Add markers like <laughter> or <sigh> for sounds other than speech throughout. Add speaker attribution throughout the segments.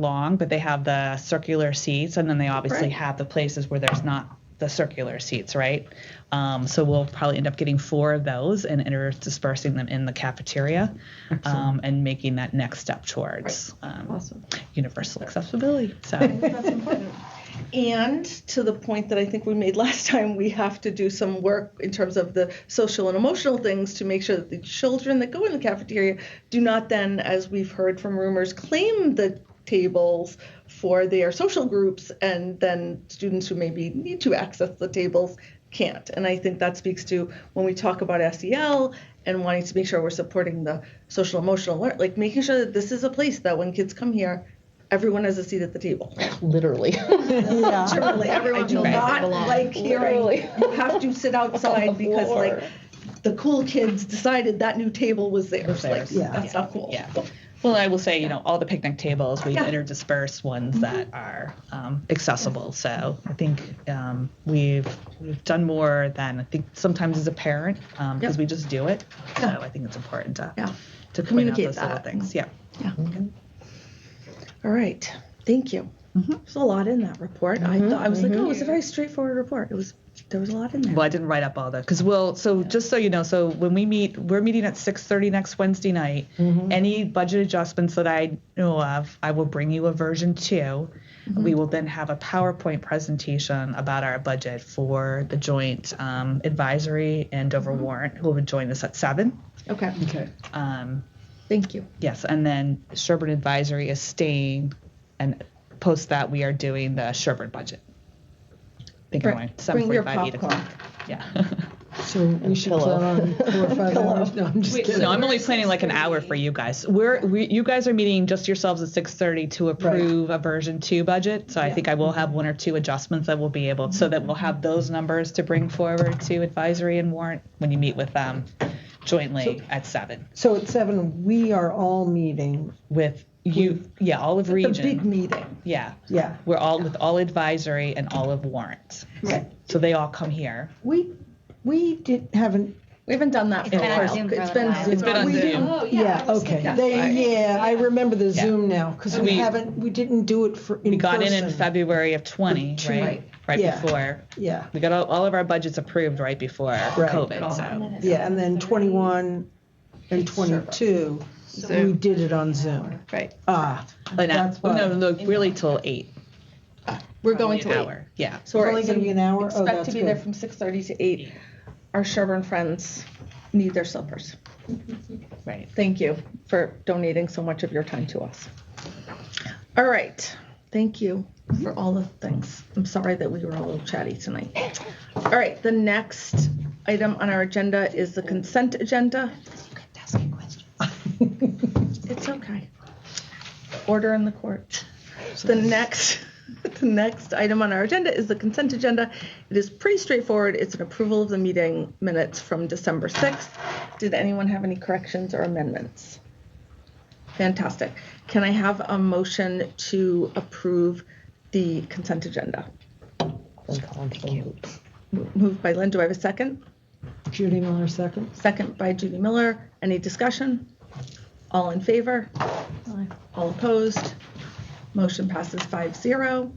Speaker 1: long, but they have the circular seats, and then they obviously
Speaker 2: Right.
Speaker 1: have the places where there's not the circular seats, right? Um, so we'll probably end up getting four of those and interspersing them in the cafeteria, um, and making that next step towards um,
Speaker 2: Awesome.
Speaker 1: universal accessibility.
Speaker 2: <laughs>
Speaker 1: So.
Speaker 2: That's important. And to the point that I think we made <laughs> last time, we have to do some work in terms of the social and emotional things to make sure that the children that go in the cafeteria do not then, as we've heard from rumors, claim the tables for their social groups, and then students who maybe need to access the tables can't. And I think that speaks to when we talk about SEL and wanting to make sure we're supporting the social emotional learn, like making sure that this is a place that when kids come here, everyone has a seat at the table.
Speaker 3: <laughs>
Speaker 4: Literally.
Speaker 2: Literally, everyone
Speaker 4: do
Speaker 2: will
Speaker 4: not
Speaker 2: not like hearing,
Speaker 4: Literally.
Speaker 2: you have <laughs> to sit outside because like
Speaker 4: floor.
Speaker 2: the cool kids decided that new table was theirs. Like,
Speaker 1: theirs. Yeah.
Speaker 2: that's not cool.
Speaker 1: Yeah. Well, I will say, you know, all the picnic tables, we
Speaker 2: Yeah. Mm-hmm.
Speaker 1: interdisperse ones that are um, accessible. So I think um, we've we've done more than I think sometimes as a parent because
Speaker 2: Yep.
Speaker 1: we just do it.
Speaker 2: Yeah.
Speaker 1: So I think it's important to
Speaker 2: Yeah.
Speaker 1: to point out
Speaker 2: Communicate uh,
Speaker 1: those little
Speaker 2: that.
Speaker 1: things. Yeah.
Speaker 2: Yeah. All right. Thank you. There's a lot in that report. I thought I was like, oh, it was a very straightforward report. It was there was a lot in there.
Speaker 1: Well, I didn't write up all the because we'll. So just so you know, so when we meet, we're meeting at 6:30 next Wednesday night.
Speaker 2: Mm-hmm.
Speaker 1: Any budget adjustments that I know of, I will bring you a version 2
Speaker 2: Mm-hmm.
Speaker 1: We will then have a PowerPoint presentation about our budget for the joint um, advisory and Dover
Speaker 2: Mm-hmm.
Speaker 1: warrant, who will join us at seven.
Speaker 2: Okay.
Speaker 4: Okay.
Speaker 1: Um,
Speaker 2: Thank you.
Speaker 1: yes, and then Sherburne Advisory is staying, and post that we are doing the Sherburne budget. I think
Speaker 2: Bring-
Speaker 1: I'm going
Speaker 2: bring your
Speaker 1: 7:45, 8 o'clock. Yeah. <laughs>
Speaker 3: So we should
Speaker 4: pillow.
Speaker 3: plan on four
Speaker 4: <laughs>
Speaker 3: or five hours. No, I'm just
Speaker 1: Wait,
Speaker 3: kidding.
Speaker 1: no, I'm only planning like an hour for you guys. We're we, you guys are meeting just yourselves at 6:30 to approve a version two budget. So I think I will have one or two adjustments that we'll be able so that we'll have those numbers to bring forward to advisory and warrant when you meet with them jointly at seven
Speaker 3: So at seven, we are all meeting.
Speaker 1: with you. Yeah, all of
Speaker 2: It's a big
Speaker 1: region.
Speaker 2: meeting.
Speaker 1: Yeah,
Speaker 3: Yeah.
Speaker 1: we're all with all advisory and all of warrant.
Speaker 3: Right.
Speaker 1: So they all come here.
Speaker 3: We, we did, haven't,
Speaker 2: We haven't done that for a
Speaker 1: been on
Speaker 2: while.
Speaker 5: Zoom for
Speaker 2: It's
Speaker 5: a
Speaker 2: been
Speaker 5: while.
Speaker 2: Zoom.
Speaker 1: It's been on
Speaker 3: We
Speaker 1: Zoom.
Speaker 3: didn't-
Speaker 6: Oh, yeah.
Speaker 3: yeah,
Speaker 6: I was
Speaker 3: okay.
Speaker 6: thinking-
Speaker 3: They, yeah, I remember the
Speaker 1: Yeah.
Speaker 3: Zoom now, because we
Speaker 1: We-
Speaker 3: haven't, we didn't do it for, in
Speaker 1: We got in in
Speaker 3: person.
Speaker 1: February of 20,
Speaker 3: Two-
Speaker 1: right?
Speaker 3: right.
Speaker 1: Right
Speaker 3: Yeah.
Speaker 1: before.
Speaker 3: Yeah,
Speaker 1: We got all, all of our budgets approved right before COVID. So
Speaker 3: yeah, and then twenty-one and twenty-two, we did it on Zoom.
Speaker 2: Right.
Speaker 3: Ah,
Speaker 1: And I-
Speaker 3: That's why-
Speaker 1: no, no, really till eight.
Speaker 2: We're going
Speaker 1: an
Speaker 2: to eight.
Speaker 1: hour. Yeah.
Speaker 3: so it's only gonna be an hour? Oh,
Speaker 2: Expect
Speaker 3: that's
Speaker 2: to be there
Speaker 3: good.
Speaker 2: from 6:30 to 8. Our Sherburne friends need their suppers.
Speaker 1: Right.
Speaker 2: Thank you for donating so much of your time to us. All right. Thank you for all the things. I'm sorry that we were a little chatty tonight. All right, the next item on our agenda is the consent agenda. <laughs> It's okay. Order in the court. The next, <laughs> the next item on our agenda is the consent agenda. It is pretty straightforward. It's an approval of the meeting minutes from December 6th. Did anyone have any corrections or amendments? Fantastic. Can I have a motion to approve the consent agenda? Mo- Moved by Lynn. Do I have a second?
Speaker 3: Judy Miller seconds.
Speaker 2: Second by Judy Miller. Any discussion? All in favor? All opposed? Motion passes 5-0.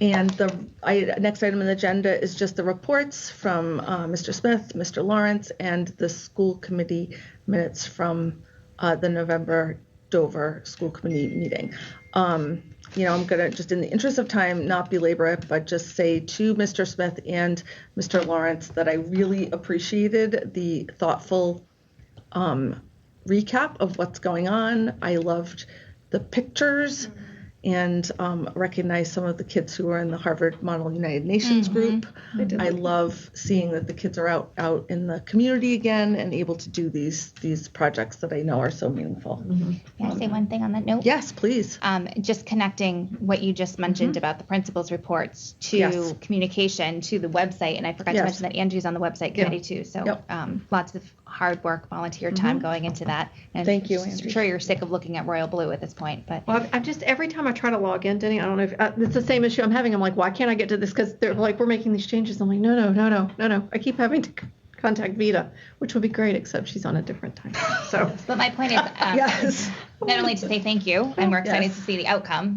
Speaker 2: And the I- next item on the agenda is just the reports from uh, Mr. Smith, Mr. Lawrence, and the school committee minutes from uh, the November Dover School Committee meeting. Um, You know, I'm going to, just in the interest of time, not belabor it, but just say to Mr. Smith and Mr. Lawrence that I really appreciated the thoughtful recap of what's going on. I loved the pictures and um, recognized some of the kids who were in the Harvard Model United Nations group. I love seeing that the kids are out out in the community again and able to do these these projects that I know are so meaningful.
Speaker 5: Can I say one thing on that note?
Speaker 2: Yes, please.
Speaker 5: Um, just connecting what you just mentioned about the principal's reports to
Speaker 2: Mm-hmm. Yes.
Speaker 5: communication to the website, and I forgot
Speaker 2: Yes.
Speaker 5: to mention that Andrew's on the website
Speaker 2: Yeah.
Speaker 5: committee too. So
Speaker 2: Yep. Mm-hmm.
Speaker 5: um, lots of hard work, volunteer time going into that. And
Speaker 2: Thank you,
Speaker 5: I'm
Speaker 2: Andrew.
Speaker 5: sure you're sick of looking at Royal Blue at this point, but
Speaker 6: Well, I've- I've just, every time I try to log in, Denny, I don't know if, uh, it's the same issue I'm having. I'm like, why can't I get to this? Because they're like, we're making these changes. I'm like, no, no, no, no, no, no. I keep having to c- contact Vita, which would be great, except she's on a different time. So
Speaker 5: but my point is, um,
Speaker 2: <laughs> Yes.
Speaker 5: not only to say thank you, and we're excited
Speaker 2: Yes.
Speaker 5: to see the outcome,